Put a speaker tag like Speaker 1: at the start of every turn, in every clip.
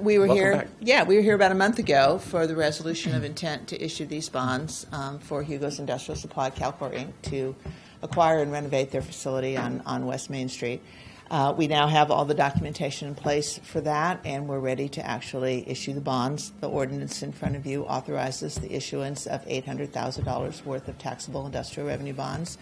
Speaker 1: We were
Speaker 2: Welcome
Speaker 1: here,
Speaker 2: back.
Speaker 1: yeah, we were here about a month ago for the resolution of intent to issue these bonds um, for Hugo's Industrial Supply Calcor Inc. to acquire and renovate their facility on, on West Main Street. Uh, we now have all the documentation in place for that, and we're ready to actually issue the bonds. The ordinance in front of you authorizes the issuance of $800,000 worth of taxable industrial revenue bonds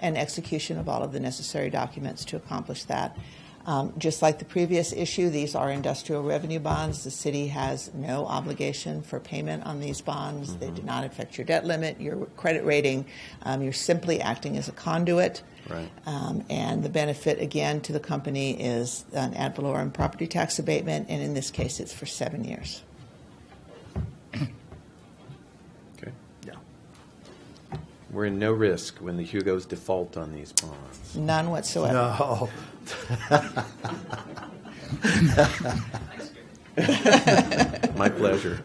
Speaker 1: and execution of all of the necessary documents to accomplish that. Um, just like the previous issue, these are industrial revenue bonds. The city has no obligation for payment on these bonds. They
Speaker 2: Mm-hmm.
Speaker 1: do not affect your debt limit, your credit rating. Um, you're simply acting as a conduit.
Speaker 2: Right.
Speaker 1: Um, and the benefit, again, to the company is an ad valorem property tax abatement, and in this case, it's for seven years.
Speaker 2: Okay. Yeah. We're in no risk when the Hugos default on these bonds.
Speaker 1: None whatsoever.
Speaker 3: No.
Speaker 2: My pleasure.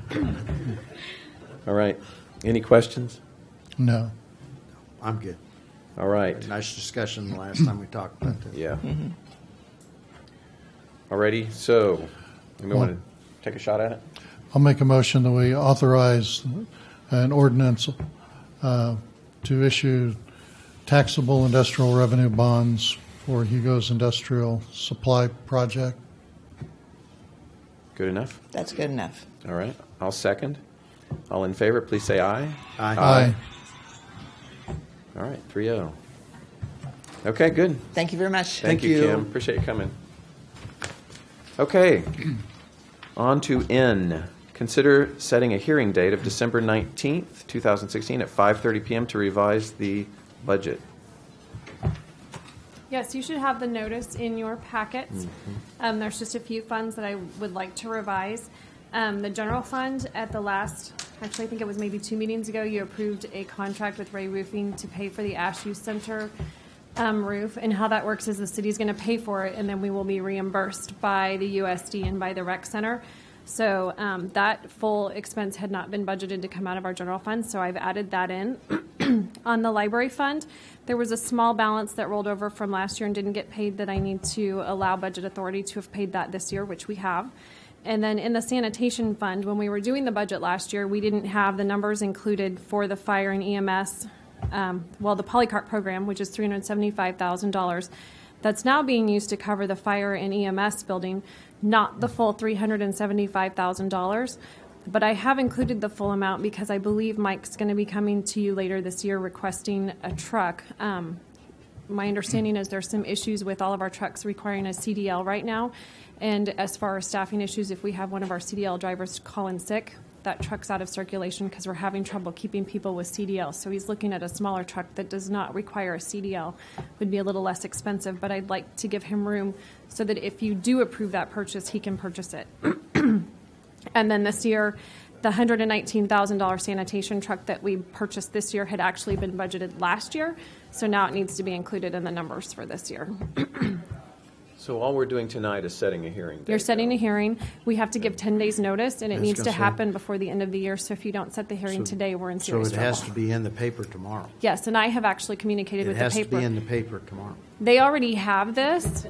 Speaker 2: All right. Any questions?
Speaker 4: No.
Speaker 3: I'm good.
Speaker 2: All right.
Speaker 3: Nice discussion the last time we talked about this.
Speaker 2: Yeah. Alrighty, so, we want to
Speaker 4: One.
Speaker 2: take a shot at it?
Speaker 4: I'll make a motion that we authorize an ordinance uh, to issue taxable industrial revenue bonds for Hugo's industrial supply project.
Speaker 2: Good enough?
Speaker 1: That's good enough.
Speaker 2: All right, I'll second. All in favor, please say aye.
Speaker 3: Aye.
Speaker 2: All right, three oh. Okay, good.
Speaker 1: Thank you very much.
Speaker 2: Thank
Speaker 3: Thank
Speaker 2: you,
Speaker 3: you.
Speaker 2: Kim. Appreciate you coming. Okay, on to N. Consider setting a hearing date of December 19th, 2016 at 5:30 PM to revise the budget.
Speaker 5: Yes, you should have the notice in your packets. Um, there's just a few funds that I would like to revise. Um, the general fund at the last, actually, I think it was maybe two meetings ago, you approved a contract with Ray Roofing to pay for the Ash Youth Center um, roof. And how that works is the city's going to pay for it, and then we will be reimbursed by the USD and by the rec center. So um, that full expense had not been budgeted to come out of our general fund, so I've added that in. on the library fund, there was a small balance that rolled over from last year and didn't get paid that I need to allow budget authority to have paid that this year, which we have. And then in the sanitation fund, when we were doing the budget last year, we didn't have the numbers included for the fire and EMS, um, well, the polycart program, which is three hundred seventy-five thousand dollars. That's now being used to cover the fire and EMS building, not the full three hundred and seventy-five thousand dollars. But I have included the full amount because I believe Mike's going to be coming to you later this year requesting a truck. Um, my understanding is there's some issues with all of our trucks requiring a CDL right now. And as far as staffing issues, if we have one of our CDL drivers call in sick, that truck's out of circulation because we're having trouble keeping people with CDL. So he's looking at a smaller truck that does not require a CDL, would be a little less expensive, but I'd like to give him room so that if you do approve that purchase, he can purchase it. And then this year, the $119,000 sanitation truck that we purchased this year had actually been budgeted last year, so now it needs to be included in the numbers for this year.
Speaker 2: So all we're doing tonight is setting a hearing date.
Speaker 5: You're setting a hearing, we have to give 10 days' notice, and it
Speaker 3: Yes,
Speaker 5: needs to
Speaker 3: Counselor.
Speaker 5: happen before the end of the year, so if you don't set the hearing
Speaker 3: So-
Speaker 5: today, we're in
Speaker 3: So
Speaker 5: serious
Speaker 3: it has to
Speaker 5: trouble.
Speaker 3: be in the paper tomorrow.
Speaker 5: Yes, and I have actually communicated
Speaker 3: It
Speaker 5: with the
Speaker 3: has to be in
Speaker 5: paper.
Speaker 3: the paper tomorrow.
Speaker 5: They already have this,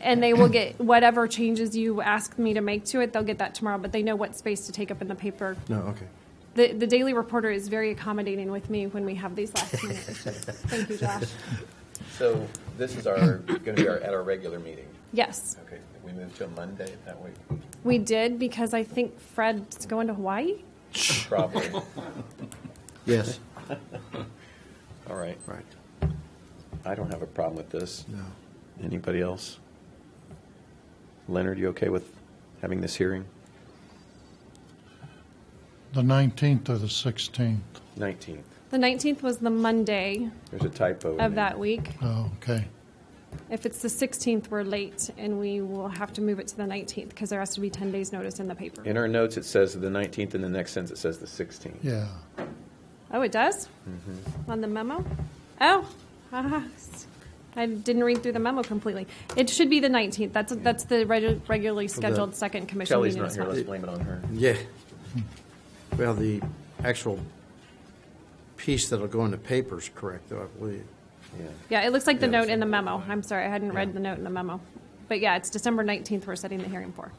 Speaker 5: and they will get whatever changes you ask me to make to it, they'll get that tomorrow, but they know what space to take up in the paper
Speaker 3: No, okay.
Speaker 5: The, the Daily Reporter is very accommodating with me when we have these last minute issues. Thank you, Josh.
Speaker 2: So this is our, going to be our, at our regular meeting.
Speaker 5: Yes,
Speaker 2: Okay, we move to a Monday that week,
Speaker 5: we did because I think Fred's going to Hawaii.
Speaker 2: probably.
Speaker 3: Yes.
Speaker 2: All right.
Speaker 3: Right.
Speaker 2: I don't have a problem with this.
Speaker 3: No.
Speaker 2: Anybody else? Leonard, you okay with having this hearing?
Speaker 4: The 19th or the 16th?
Speaker 2: 19th.
Speaker 5: The 19th was the Monday
Speaker 2: There's a typo. in
Speaker 5: of
Speaker 2: there.
Speaker 5: that week.
Speaker 4: Oh, okay.
Speaker 5: If it's the 16th, we're late and we will have to move it to the 19th because there has to be 10 days' notice in the paper.
Speaker 2: In our notes, it says the 19th, and the next sentence it says the 16th.
Speaker 4: Yeah.
Speaker 5: Oh, it does?
Speaker 2: Mm-hmm.
Speaker 5: On the memo? Oh, ah, I didn't read through the memo completely. It should be the 19th. That's, that's the regu- regularly scheduled second commission
Speaker 2: Kelly's
Speaker 5: meeting
Speaker 2: not
Speaker 5: as
Speaker 2: here.
Speaker 5: well.
Speaker 2: Let's blame it on her.
Speaker 3: Yeah. Well, the actual piece that'll go in the paper's correct, though, I believe.
Speaker 2: Yeah.
Speaker 5: Yeah, it looks like the
Speaker 3: Yeah,
Speaker 5: note in the memo. I'm sorry, I hadn't read the note in the memo. But yeah, it's December 19th we're setting the hearing for.